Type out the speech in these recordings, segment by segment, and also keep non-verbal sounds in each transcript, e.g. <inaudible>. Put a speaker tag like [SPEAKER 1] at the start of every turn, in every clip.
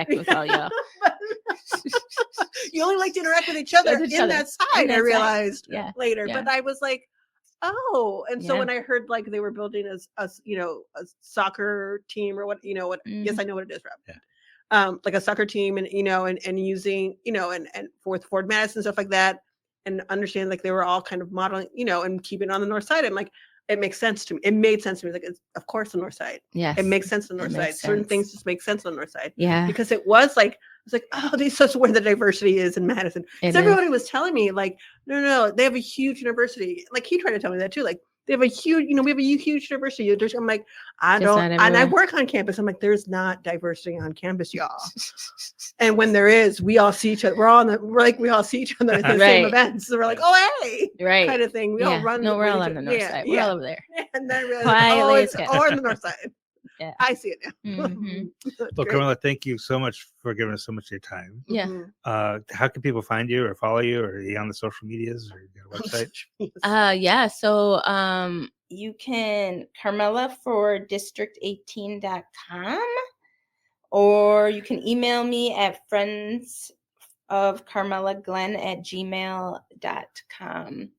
[SPEAKER 1] interact with all
[SPEAKER 2] <laughs>
[SPEAKER 1] y'all.
[SPEAKER 2] you only like to interact with each other
[SPEAKER 1] With each
[SPEAKER 2] in
[SPEAKER 1] other.
[SPEAKER 2] that side.
[SPEAKER 1] In that
[SPEAKER 2] I
[SPEAKER 1] side.
[SPEAKER 2] realized
[SPEAKER 1] Yeah.
[SPEAKER 2] later,
[SPEAKER 1] Yeah.
[SPEAKER 2] but I was like, oh. And so
[SPEAKER 1] Yeah.
[SPEAKER 2] when I heard like they were building a, s- a s- you know a soccer team or what you know what
[SPEAKER 1] Mm-hmm.
[SPEAKER 2] yes I know what it is, Rob.
[SPEAKER 3] Yeah.
[SPEAKER 2] Um, like a soccer team and you know and and using you know and and fourth Ford Madison stuff like that and understand like they were all kind of modeling you know and keeping it on the north side. I'm like. It makes sense to me. It made sense to me. Like, it's, of course, the north side.
[SPEAKER 1] Yes. <laughs>
[SPEAKER 2] It makes sense on the
[SPEAKER 1] It
[SPEAKER 2] north side.
[SPEAKER 1] makes
[SPEAKER 2] Certain
[SPEAKER 1] sense.
[SPEAKER 2] things just make sense on the north side
[SPEAKER 1] Yeah.
[SPEAKER 2] because it was like I was like, oh, <laughs> this is where the diversity is in Madison.
[SPEAKER 1] it
[SPEAKER 2] Because
[SPEAKER 1] is.
[SPEAKER 2] everybody was telling me like, no, no, no, they have a huge university. Like he tried to tell me that too. Like they have a huge, you know, we have a hu- huge university. There's- I'm like, I
[SPEAKER 1] It's
[SPEAKER 2] don't,
[SPEAKER 1] not
[SPEAKER 2] and I
[SPEAKER 1] everywhere.
[SPEAKER 2] work on campus. I'm like, there's not diversity on campus, y'all. And when there is, we all see each other. We're all on the, we're like, we all see each other at
[SPEAKER 1] <laughs>
[SPEAKER 2] the
[SPEAKER 1] Right.
[SPEAKER 2] same events. So we're like, oh, hey,
[SPEAKER 1] right.
[SPEAKER 2] kind of thing. We all
[SPEAKER 1] Yeah.
[SPEAKER 2] run.
[SPEAKER 1] No, we're
[SPEAKER 2] with
[SPEAKER 1] all
[SPEAKER 2] each
[SPEAKER 1] on the
[SPEAKER 2] oth-
[SPEAKER 1] north
[SPEAKER 2] yeah,
[SPEAKER 1] side. We're
[SPEAKER 2] Yeah.
[SPEAKER 1] all over there.
[SPEAKER 2] <laughs> And then I realized, oh,
[SPEAKER 1] Quietly
[SPEAKER 2] it's
[SPEAKER 1] as
[SPEAKER 2] all on the north side.
[SPEAKER 1] <laughs> Yeah.
[SPEAKER 2] I see it now. <laughs>
[SPEAKER 1] Mhm.
[SPEAKER 3] Well,
[SPEAKER 2] Great.
[SPEAKER 3] Carmela, thank you so much for giving us so much of your time.
[SPEAKER 1] Yeah.
[SPEAKER 2] Mhm.
[SPEAKER 3] Uh, how can people find you or follow you or are you on the social medias or
[SPEAKER 2] <laughs>
[SPEAKER 3] your website?
[SPEAKER 1] Uh yeah, so um you can Carmela for district18.com
[SPEAKER 4] or you can email me at friends of carmela glenn at gmail.com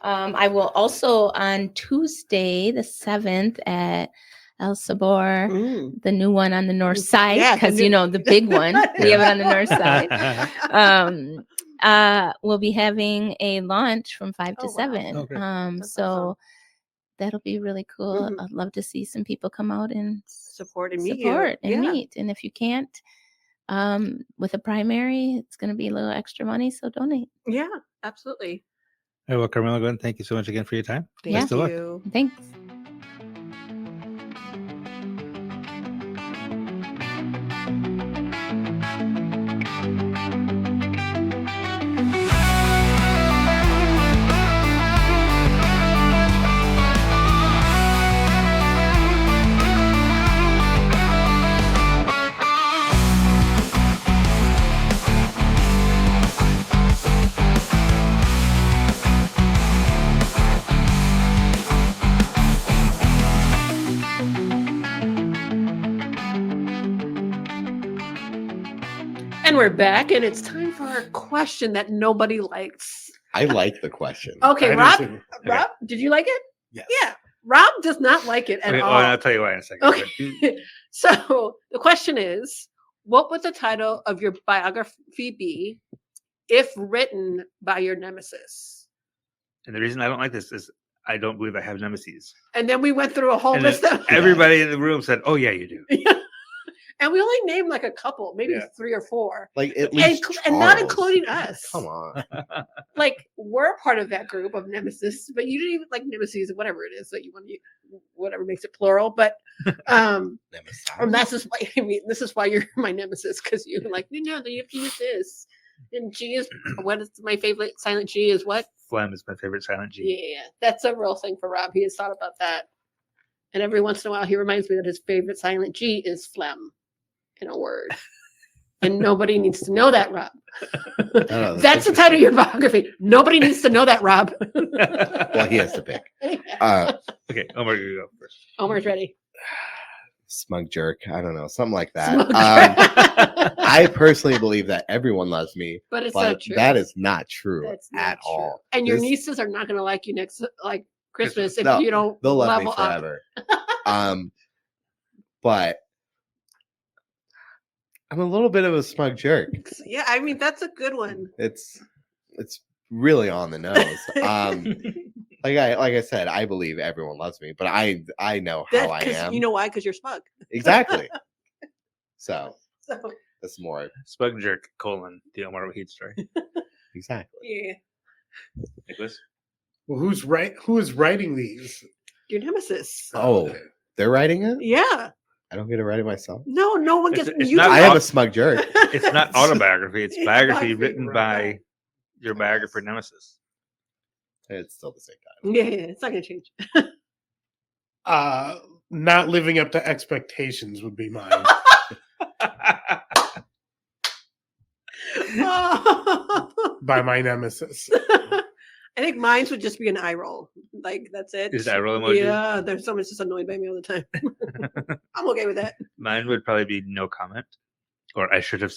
[SPEAKER 4] um, i will also on tuesday the 7th at el sabor
[SPEAKER 2] Mm.
[SPEAKER 4] the new one on the north side
[SPEAKER 2] Yeah, the
[SPEAKER 4] because you
[SPEAKER 2] new-
[SPEAKER 4] know the
[SPEAKER 2] <laughs>
[SPEAKER 4] big one we have it on the
[SPEAKER 3] <laughs>
[SPEAKER 4] north side um uh we'll be having a launch from five
[SPEAKER 2] Oh,
[SPEAKER 4] to
[SPEAKER 2] wow.
[SPEAKER 4] seven
[SPEAKER 3] Oh, great.
[SPEAKER 4] um
[SPEAKER 2] That's
[SPEAKER 4] so
[SPEAKER 2] awesome.
[SPEAKER 4] that'll be really cool
[SPEAKER 2] Mhm.
[SPEAKER 4] i'd love to see some people come out and
[SPEAKER 2] support and meet you.
[SPEAKER 4] support and
[SPEAKER 2] Yeah.
[SPEAKER 4] meet. And if you can't, um, with a primary, it's going to be a little extra money. So donate.
[SPEAKER 2] Yeah, absolutely.
[SPEAKER 3] All right, well, Carmela, Glenn, thank you so much again for your time.
[SPEAKER 4] Yeah.
[SPEAKER 2] Thank
[SPEAKER 3] Best of luck.
[SPEAKER 2] you.
[SPEAKER 4] Thanks.
[SPEAKER 2] And we're back, and it's time for our question that nobody likes.
[SPEAKER 5] I like the question.
[SPEAKER 2] Okay,
[SPEAKER 3] I
[SPEAKER 2] Rob.
[SPEAKER 3] didn't see- okay.
[SPEAKER 2] Rob, did you like it?
[SPEAKER 5] Yes.
[SPEAKER 2] Yeah. Rob does not like it at
[SPEAKER 3] Okay, oh, well,
[SPEAKER 2] all.
[SPEAKER 3] I'll tell you why in a second.
[SPEAKER 2] Okay. so <laughs> the question is, what would the title of your biography be if written by your nemesis?
[SPEAKER 3] And the reason I don't like this is I don't believe I have nemesis.
[SPEAKER 2] And then we went through a whole
[SPEAKER 3] And
[SPEAKER 2] list of
[SPEAKER 3] Everybody in the room said, "Oh yeah, you do."
[SPEAKER 2] <laughs>
[SPEAKER 3] <laughs>
[SPEAKER 2] and we only named like a couple, maybe
[SPEAKER 3] Yeah.
[SPEAKER 2] three or four.
[SPEAKER 5] Like at
[SPEAKER 2] And
[SPEAKER 5] least
[SPEAKER 2] cl- and not
[SPEAKER 5] Charles.
[SPEAKER 2] including us.
[SPEAKER 5] Come on.
[SPEAKER 2] like we're part of that group of nemesis, but you didn't even like nemesis, whatever it is that you want to, whatever makes it plural. But
[SPEAKER 5] <laughs>
[SPEAKER 2] um, and that's just why <laughs> I mean, this is why you're my nemesis because you're like, no, no, you have to use this. And G
[SPEAKER 5] <clears throat>
[SPEAKER 2] is what is my favorite silent G is what?
[SPEAKER 3] Phlegm is my favorite silent G.
[SPEAKER 2] Yeah, that's a real thing for Rob. He has thought about that, and every once in a while, he reminds me that his favorite silent G is phlegm, in a word.
[SPEAKER 5] <laughs>
[SPEAKER 2] And nobody needs to know that, Rob.
[SPEAKER 5] Oh, that's
[SPEAKER 2] That's the title of your biography. Nobody needs to know that, Rob.
[SPEAKER 5] <laughs> Well, he
[SPEAKER 2] <laughs>
[SPEAKER 5] has to pick. Uh,
[SPEAKER 3] <laughs> okay, Omar, you go first.
[SPEAKER 2] Omar's ready.
[SPEAKER 5] smug jerk. I don't know, something like that.
[SPEAKER 2] Smoke.
[SPEAKER 5] Um, I personally believe that everyone loves me,
[SPEAKER 2] <laughs> but it's not
[SPEAKER 5] but
[SPEAKER 2] true.
[SPEAKER 5] that is not true
[SPEAKER 2] That's not
[SPEAKER 5] at
[SPEAKER 2] true.
[SPEAKER 5] all.
[SPEAKER 2] And your
[SPEAKER 5] This-
[SPEAKER 2] nieces are not going to like you next, like Christmas, if
[SPEAKER 5] No,
[SPEAKER 2] you don't
[SPEAKER 5] They'll love
[SPEAKER 2] level
[SPEAKER 5] me
[SPEAKER 2] up. <laughs>
[SPEAKER 5] forever. um, but I'm a little bit of a smug jerk.
[SPEAKER 2] Yeah, I mean that's a good one.
[SPEAKER 5] It's it's really on the nose. Um,
[SPEAKER 2] <laughs>
[SPEAKER 5] like I like I said, I believe everyone loves me, but I I know how I
[SPEAKER 2] Because
[SPEAKER 5] am
[SPEAKER 2] you know why? Because you're smug. <laughs>
[SPEAKER 5] exactly. So
[SPEAKER 2] So
[SPEAKER 5] that's more
[SPEAKER 3] Spug jerk colon the Omar Heat story.
[SPEAKER 5] exactly.
[SPEAKER 2] yeah,
[SPEAKER 3] Nicholas,
[SPEAKER 6] Well, who's right? Who is writing these?
[SPEAKER 2] your nemesis.
[SPEAKER 5] Oh, they're writing it.
[SPEAKER 2] Yeah.
[SPEAKER 5] I don't get to write it myself.
[SPEAKER 2] No, no one
[SPEAKER 3] It's-
[SPEAKER 2] gets
[SPEAKER 3] it's
[SPEAKER 2] you.
[SPEAKER 3] not
[SPEAKER 5] I
[SPEAKER 2] don't-
[SPEAKER 5] am a smug jerk.
[SPEAKER 2] <laughs>
[SPEAKER 3] it's not autobiography; it's
[SPEAKER 2] It's biography,
[SPEAKER 3] biography written
[SPEAKER 6] right.
[SPEAKER 3] by your biographer nemesis.
[SPEAKER 5] It's still the same time.
[SPEAKER 2] Yeah, it's not gonna change. <laughs>
[SPEAKER 6] Uh, not living up to expectations would be mine.
[SPEAKER 2] Oh.
[SPEAKER 6] by my nemesis.
[SPEAKER 2] I think mine's would just be an eye roll. Like that's it.
[SPEAKER 3] Is that roll emoji?
[SPEAKER 2] Yeah, there's someone's just annoyed by me all the time. <laughs> I'm okay with that.
[SPEAKER 3] Mine would probably be no comment. or I should have